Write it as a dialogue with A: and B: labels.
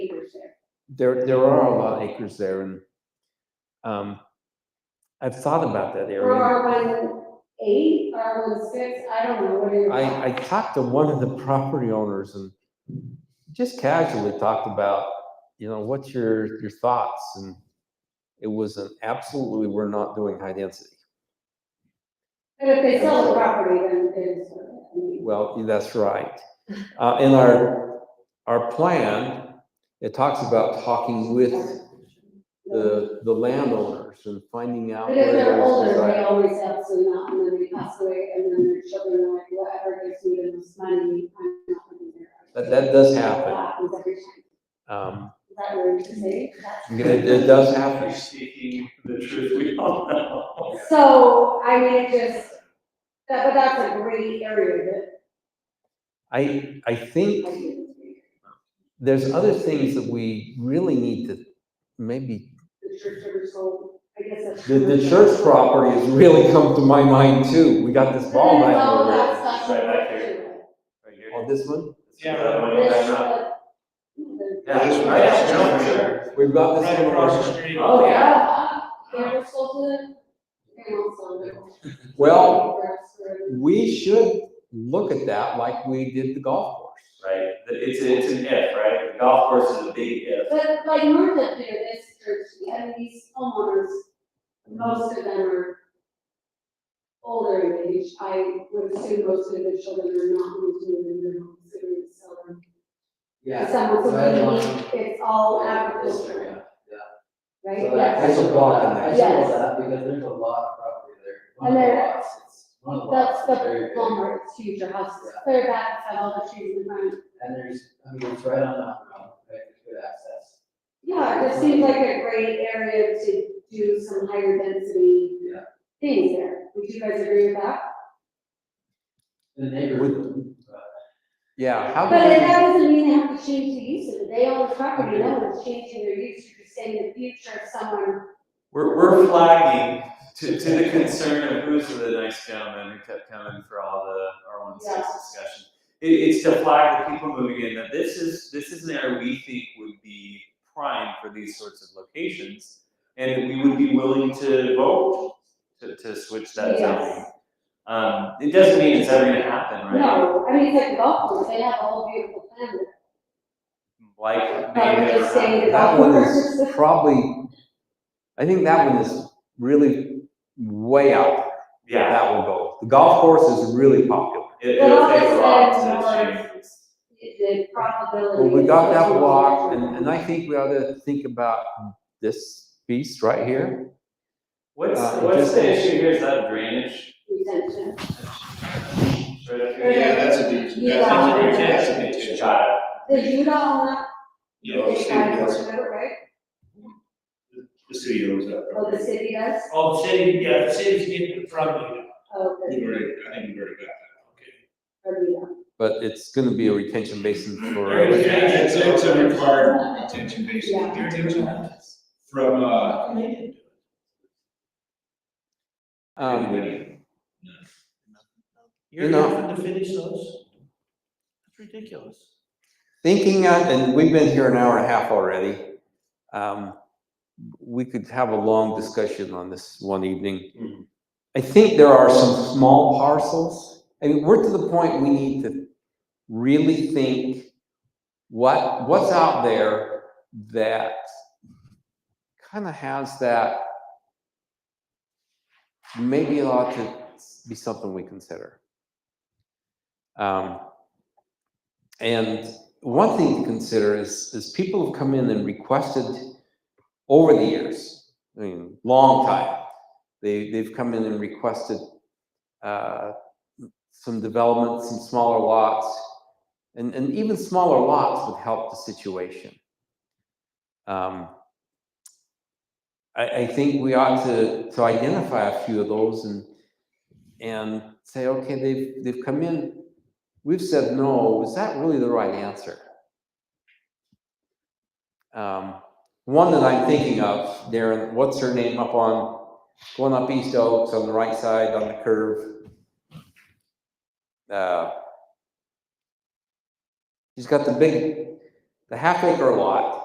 A: there, there are a lot of acres there and, um, I've thought about that
B: Or
A: area.
B: R one eight, R one six, I don't know, what are your?
A: I, I talked to one of the property owners and just casually talked about, you know, what's your, your thoughts? And it was an absolutely, we're not doing high density.
B: But if they sell the property, then it's, I mean,
A: Well, that's right. Uh, in our, our plan, it talks about talking with the, the landowners and finding out.
B: But if
A: where
B: they're
A: there's
B: older,
A: desire.
B: they always have some out, and then they pass away, and then their children are like, whatever, gives me the most money, I'm not gonna be there.
A: That, that does happen.
B: happens every time. Is
A: Um,
B: that weird to say? That's-
A: it, it does happen.
C: Speaking the truth, we all know.
B: So, I mean, it just, that, but that's a great area that.
A: I, I
B: I
A: think
B: mean,
A: there's other things that we really need to, maybe,
B: The church ever sold, I guess. that's-
A: the, the church property has really come to my mind too. We got this
B: But
A: ball
B: then
A: back
B: all
A: over
B: that
A: here.
B: stuff-
C: Right back here. Right here.
A: On this one,
C: Yeah.
B: This,
C: but-
B: uh, the-
C: Yeah, this one, yeah, for sure.
A: we've got this
C: Right
A: one
C: across the
A: over.
C: street.
B: Oh, yeah. They ever sold it? They don't sell it.
A: Well,
B: Grass or-
A: we should look at that like we did the golf course.
C: Right, it's, it's an if, right? The golf course is a big if.
B: But like north up there, this church, and these homeowners, most of them are older in age. I would assume most of the children are not moved to in their home, so it's seldom. Some of
A: so I
B: them,
A: want-
B: it's all agriculture, right?
D: So that-
B: Yes.
A: There's a block in there.
D: I
B: Yes.
D: saw that because there's a lot of property there. One
B: And
D: of the
B: there-
D: lots, it's- one of the
B: That's
D: lots
B: the
D: is very big.
B: Walmart, it's huge, your house is
D: Yeah.
B: clear back, have all the trees in front.
D: And there's, I mean, it's right on that road, right, it's good access.
B: Yeah, it just seems like a great area to do some higher density
D: Yeah.
B: things there. Would you guys agree with that?
D: The neighborhood, but
A: Yeah, how
B: But
A: about,
B: that doesn't mean they have to change the use of it, they own the property, no one's changing their use, you're just saying the future if someone,
C: We're, we're flagging to, to the concern of who's the nice gentleman who kept coming for all the R one six
B: Yeah.
C: discussion. It, it's to flag the people moving in that this is, this is an area we think would be prime for these sorts of locations. And we would be willing to vote to, to switch that zoning.
B: yes.
C: Um, it doesn't mean it's ever gonna happen, right?
B: No, I mean, it's like golf course, they have a whole beautiful plan,
C: Like,
B: But
C: maybe
B: we're just
C: never
B: saying
C: happened.
A: that one is probably, I think that one is really way out. there.
C: Yeah,
A: That will go. The golf course is really popular.
C: it,
B: But
C: it'll take a
B: all this
C: lot to
B: said,
C: change.
B: more, the probability.
A: Well, we
B: is
A: got that
B: just-
A: block and, and I think we ought to think about this piece right here.
C: What's,
A: Uh, it
C: what's
A: just-
C: the issue here? Is that drainage?
B: Retention.
C: Right up here?
B: Yeah, that's
E: a beach.
B: Yeah.
E: That's a beach.
C: Good shot.
B: The Utah on that,
E: You know, the
B: they
E: city
B: try to
E: does,
B: push it out, right?
E: the city owns that.
B: Oh, the city does?
F: Oh, the city, yeah, the city's getting the property.
B: Oh, the,
E: You already- I think you already got that, okay.
B: or Utah.
A: But it's gonna be a retention basin
F: There
A: for,
F: is. Yeah, it's-
E: It's,
F: it's
E: it's a
F: a
E: required retention basin. From, uh,
A: um,
F: You're
A: You know-
F: going to finish those? That's ridiculous.
A: thinking, on- and we've been here an hour and a half already. Um, we could have a long discussion on this one evening.
C: Mhm.
A: I think there are some small parcels. I mean, we're to the point we need to really think what, what's out there that kind of has that maybe it ought to be something we consider. Um, and one thing to consider is, is people have come in and requested over the years, I mean, long time. They, they've come in and requested, uh, some development, some smaller lots. And, and even smaller lots would help the situation. Um, I, I think we ought to, to identify a few of those and, and say, okay, they've, they've come in, we've said no, is that really the right answer? Um, one that I'm thinking of, Darren, what's her name up on, going up East Oaks on the right side on the curve? Uh, she's got the big, the half acre lot.